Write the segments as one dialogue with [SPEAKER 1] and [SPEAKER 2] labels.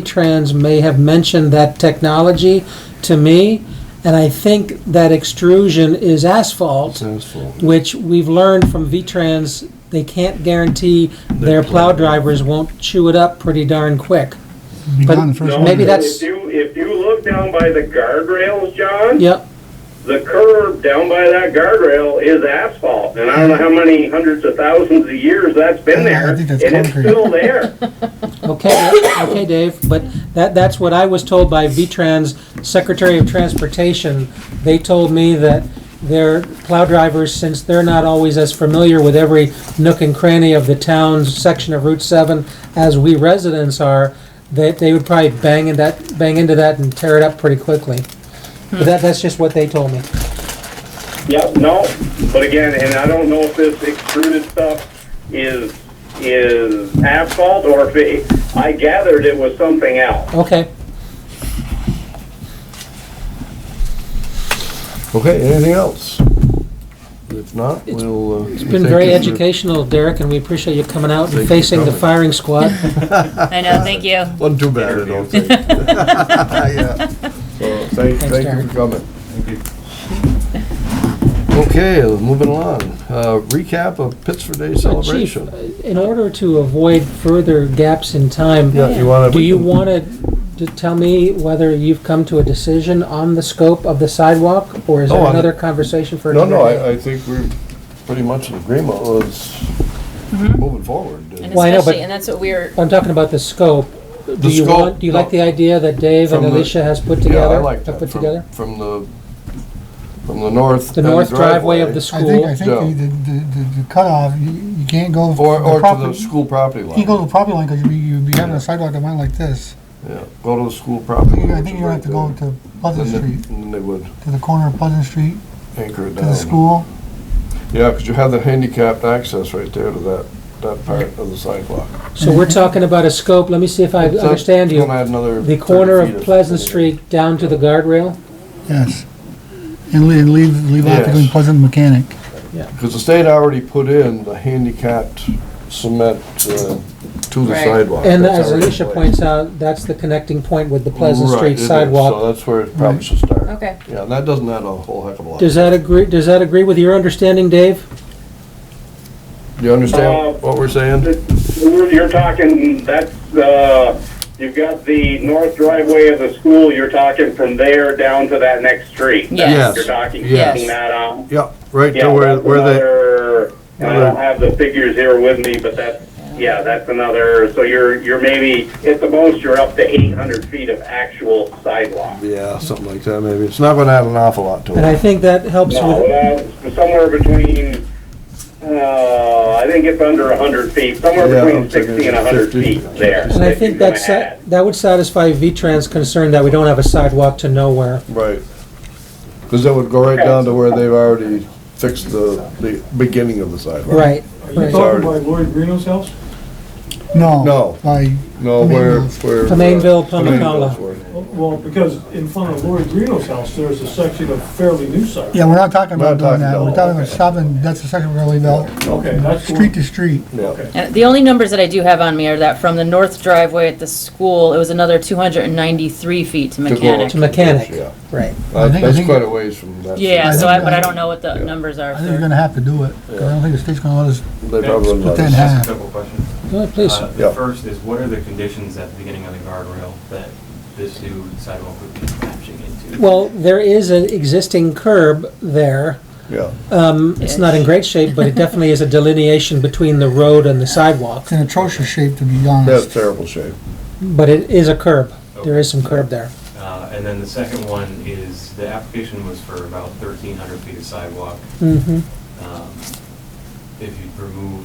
[SPEAKER 1] V-Trans may have mentioned that technology to me, and I think that extrusion is asphalt,
[SPEAKER 2] Sounds full.
[SPEAKER 1] which we've learned from V-Trans, they can't guarantee their plow drivers won't chew it up pretty darn quick.
[SPEAKER 3] Be
[SPEAKER 1] But-
[SPEAKER 3] gone the first
[SPEAKER 1] No.
[SPEAKER 3] one.
[SPEAKER 1] Maybe that's-
[SPEAKER 4] If you, if you look down by the guardrails, John,
[SPEAKER 1] Yep,
[SPEAKER 4] the curb down by that guardrail is asphalt. And I don't know how many hundreds of thousands of years that's been
[SPEAKER 3] Yeah, I
[SPEAKER 4] there.
[SPEAKER 3] think that's
[SPEAKER 4] And it's
[SPEAKER 3] concrete.
[SPEAKER 4] still there.
[SPEAKER 1] okay, okay, Dave, but that, that's what I was told by V-Trans Secretary of Transportation. They told me that their plow drivers, since they're not always as familiar with every nook and cranny of the town's section of Route 7 as we residents are, that they would probably bang in that, bang into that and tear it up pretty quickly. But that, that's just what they told me.
[SPEAKER 4] Yep, no, but again, and I don't know if this extruded stuff is, is asphalt or if it, I gathered it was something else.
[SPEAKER 1] Okay,
[SPEAKER 2] Okay, anything else? If not, we'll. uh,
[SPEAKER 1] it's been very educational, Derek, and we appreciate you coming out
[SPEAKER 2] Thank you
[SPEAKER 1] and
[SPEAKER 2] for
[SPEAKER 1] facing the
[SPEAKER 2] coming.
[SPEAKER 1] firing squad.
[SPEAKER 5] I know, thank you.
[SPEAKER 2] Wasn't too bad, I don't think.
[SPEAKER 3] Yeah.
[SPEAKER 2] So, Thank, thank you
[SPEAKER 1] Derek.
[SPEAKER 2] for coming. Okay, moving along. Uh, Recap of Pittsburgh Day
[SPEAKER 1] Uh, Chief,
[SPEAKER 2] celebration.
[SPEAKER 1] in order to avoid further gaps in time,
[SPEAKER 2] Yeah, you wanna-
[SPEAKER 1] do you want to tell me whether you've come to a decision on the scope of the sidewalk, or is
[SPEAKER 2] Oh,
[SPEAKER 1] there
[SPEAKER 2] I-
[SPEAKER 1] another conversation for
[SPEAKER 2] No,
[SPEAKER 1] another
[SPEAKER 2] no,
[SPEAKER 1] day?
[SPEAKER 2] I, I think we're pretty much in agreement with
[SPEAKER 1] Mm-hmm.
[SPEAKER 2] moving forward.
[SPEAKER 5] And
[SPEAKER 1] Well, I know,
[SPEAKER 5] especially,
[SPEAKER 1] but-
[SPEAKER 5] and that's what we were,
[SPEAKER 1] I'm talking about the scope. Do
[SPEAKER 2] The
[SPEAKER 1] you
[SPEAKER 2] scope,
[SPEAKER 1] want, do you like
[SPEAKER 2] no.
[SPEAKER 1] the idea that Dave and
[SPEAKER 2] From the-
[SPEAKER 1] Alicia has put
[SPEAKER 2] Yeah, I
[SPEAKER 1] together? have
[SPEAKER 2] like that.
[SPEAKER 1] Put
[SPEAKER 2] From-
[SPEAKER 1] together?
[SPEAKER 2] From the, from the north. uh,
[SPEAKER 1] The
[SPEAKER 2] end
[SPEAKER 1] north driveway of the
[SPEAKER 3] I think, I
[SPEAKER 1] school,
[SPEAKER 3] think the, the- the, the cutoff, you, you can't go.
[SPEAKER 2] Or, or to the
[SPEAKER 3] property-
[SPEAKER 2] school property line.
[SPEAKER 3] You go to the property line, cause you'd be, you'd be having a sidewalk that went like this.
[SPEAKER 2] Yeah, go to the school property.
[SPEAKER 3] I
[SPEAKER 2] which
[SPEAKER 3] think
[SPEAKER 2] is
[SPEAKER 3] you're gonna
[SPEAKER 2] right
[SPEAKER 3] have to go
[SPEAKER 2] there.
[SPEAKER 3] to Pleasant
[SPEAKER 2] Then they-
[SPEAKER 3] Street,
[SPEAKER 2] Then they would
[SPEAKER 3] to the corner of Pleasant Street,
[SPEAKER 2] anchor it
[SPEAKER 3] to
[SPEAKER 2] down.
[SPEAKER 3] the school.
[SPEAKER 2] Yeah, because you have the handicapped access right there to that, that part of the sidewalk.
[SPEAKER 1] so we're talking about a scope, let me see if I
[SPEAKER 2] So
[SPEAKER 1] understand
[SPEAKER 2] it's
[SPEAKER 1] you.
[SPEAKER 2] gonna add another
[SPEAKER 1] The
[SPEAKER 2] 30
[SPEAKER 1] corner
[SPEAKER 2] feet
[SPEAKER 1] of Pleasant Street down to the guardrail?
[SPEAKER 3] Yes. And leave, leave, leave out
[SPEAKER 2] Yes.
[SPEAKER 3] between Pleasant and Mechanic.
[SPEAKER 2] Because the state already put in the handicapped cement uh, to the
[SPEAKER 5] Right.
[SPEAKER 2] sidewalk.
[SPEAKER 1] And
[SPEAKER 2] Oh, That's
[SPEAKER 1] as
[SPEAKER 2] already in
[SPEAKER 1] Alicia
[SPEAKER 2] place.
[SPEAKER 1] points out, that's the connecting point with the Pleasant
[SPEAKER 2] Right,
[SPEAKER 1] Street
[SPEAKER 2] it is,
[SPEAKER 1] sidewalk.
[SPEAKER 2] So that's where it probably should start.
[SPEAKER 5] okay.
[SPEAKER 2] Yeah, and that doesn't add a whole heck of a lot.
[SPEAKER 1] Does that agree, does that agree with your understanding, Dave?
[SPEAKER 2] You
[SPEAKER 4] Uh,
[SPEAKER 2] understand what we're saying?
[SPEAKER 4] We're- You're talking, that's, uh, you've got the north driveway of the school, you're talking from there down to that next street. That's what
[SPEAKER 5] Yes.
[SPEAKER 4] You're talking,
[SPEAKER 2] Yes.
[SPEAKER 4] keeping that out.
[SPEAKER 2] Yeah, right
[SPEAKER 4] Yeah,
[SPEAKER 2] to where,
[SPEAKER 4] that's
[SPEAKER 2] where they,
[SPEAKER 4] another- And I
[SPEAKER 2] where-
[SPEAKER 4] don't have the figures here with me, but that's, yeah, that's another, so you're, you're maybe, at the most, you're up to eight hundred feet of actual sidewalk.
[SPEAKER 2] yeah, something like that maybe. It's not gonna add an awful lot to
[SPEAKER 1] And I
[SPEAKER 2] it.
[SPEAKER 1] think that helps
[SPEAKER 4] No,
[SPEAKER 1] with,
[SPEAKER 4] uh, somewhere between, uh, I think it's under a hundred feet, somewhere
[SPEAKER 2] Yeah,
[SPEAKER 4] between
[SPEAKER 2] I'm thinking
[SPEAKER 4] sixty and a hundred
[SPEAKER 2] 50.
[SPEAKER 4] feet there.
[SPEAKER 1] and I
[SPEAKER 4] that
[SPEAKER 1] think
[SPEAKER 4] you're gonna
[SPEAKER 1] that's,
[SPEAKER 4] add.
[SPEAKER 1] that would satisfy V-Trans concern that we don't have a sidewalk to nowhere.
[SPEAKER 2] Right. Because that would go right
[SPEAKER 4] Okay.
[SPEAKER 2] down to where they've already fixed the, the beginning of the sidewalk.
[SPEAKER 1] Right,
[SPEAKER 6] You
[SPEAKER 1] right.
[SPEAKER 6] talking about Lori Greeno's house?
[SPEAKER 3] No.
[SPEAKER 2] No.
[SPEAKER 3] By,
[SPEAKER 2] No, where, where. uh,
[SPEAKER 1] Flamanville,
[SPEAKER 2] Flamanville's
[SPEAKER 1] Pumacala.
[SPEAKER 2] where-
[SPEAKER 6] Well, because in front of Lori Greeno's house, there's a section of fairly new site.
[SPEAKER 3] yeah, we're not talking
[SPEAKER 2] We're
[SPEAKER 3] about
[SPEAKER 2] not
[SPEAKER 3] doing
[SPEAKER 2] talking
[SPEAKER 3] that. We're
[SPEAKER 2] about-
[SPEAKER 3] talking about stopping, that's the second we're gonna leave out.
[SPEAKER 6] Okay, that's the
[SPEAKER 3] Street
[SPEAKER 6] one.
[SPEAKER 3] to street.
[SPEAKER 2] Yeah,
[SPEAKER 6] Okay.
[SPEAKER 5] And uh, the only numbers that I do have on me are that from the north driveway at the school, it was another two hundred and ninety-three feet to
[SPEAKER 2] go
[SPEAKER 5] mechanic.
[SPEAKER 1] To mechanic,
[SPEAKER 2] yeah.
[SPEAKER 1] right.
[SPEAKER 2] That-
[SPEAKER 3] think- I
[SPEAKER 2] That's
[SPEAKER 3] think-
[SPEAKER 2] quite a ways from that.
[SPEAKER 5] Yeah,
[SPEAKER 3] I
[SPEAKER 5] so
[SPEAKER 3] think-
[SPEAKER 5] I, but
[SPEAKER 3] I-
[SPEAKER 5] I don't know what the
[SPEAKER 2] Yeah.
[SPEAKER 5] numbers are.
[SPEAKER 3] I think we're
[SPEAKER 5] for-
[SPEAKER 3] gonna have to do it. 'cause I don't think the state's gonna let us
[SPEAKER 2] They probably wouldn't
[SPEAKER 3] split
[SPEAKER 2] let
[SPEAKER 3] that in
[SPEAKER 2] us.
[SPEAKER 3] half.
[SPEAKER 7] Couple questions.
[SPEAKER 1] Go ahead, please.
[SPEAKER 7] Uh,
[SPEAKER 2] Yeah.
[SPEAKER 7] The first is, what are the conditions at the beginning of the guardrail that this new sidewalk would be matching into?
[SPEAKER 1] Well, there is an existing curb there.
[SPEAKER 2] Yeah,
[SPEAKER 1] Um, it's not in great shape, but it definitely is a delineation between the road and the sidewalk.
[SPEAKER 3] It's in atrocious shape, to be
[SPEAKER 2] that's
[SPEAKER 3] honest.
[SPEAKER 2] terrible shape.
[SPEAKER 1] But it is a curb. There is some curb there.
[SPEAKER 7] Uh, And then the second one is, the application was for about 1,300 feet of sidewalk.
[SPEAKER 1] hmm
[SPEAKER 7] Um, If you remove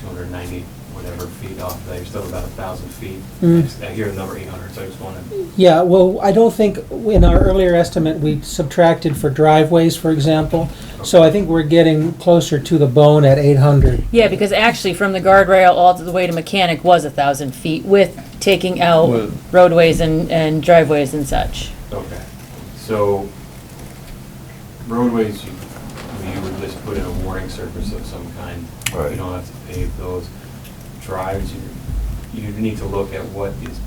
[SPEAKER 7] 290 whatever feet off, of that, you're still about 1,000 feet. I
[SPEAKER 1] Mm.
[SPEAKER 7] just- I hear the number 800, so I just wanted
[SPEAKER 1] Yeah, well, I don't think, in our earlier estimate, we subtracted for driveways, for example. So I think we're getting closer to the bone at 800.
[SPEAKER 5] Yeah, because actually from the guardrail all the way to mechanic was a thousand feet with taking out
[SPEAKER 2] Well-
[SPEAKER 5] roadways and, and driveways and such.
[SPEAKER 7] Okay, so roadways, you, you would just put in a warning surface of some kind.
[SPEAKER 2] Right.
[SPEAKER 7] You don't have to pave those. Drives, you, you need to look at what is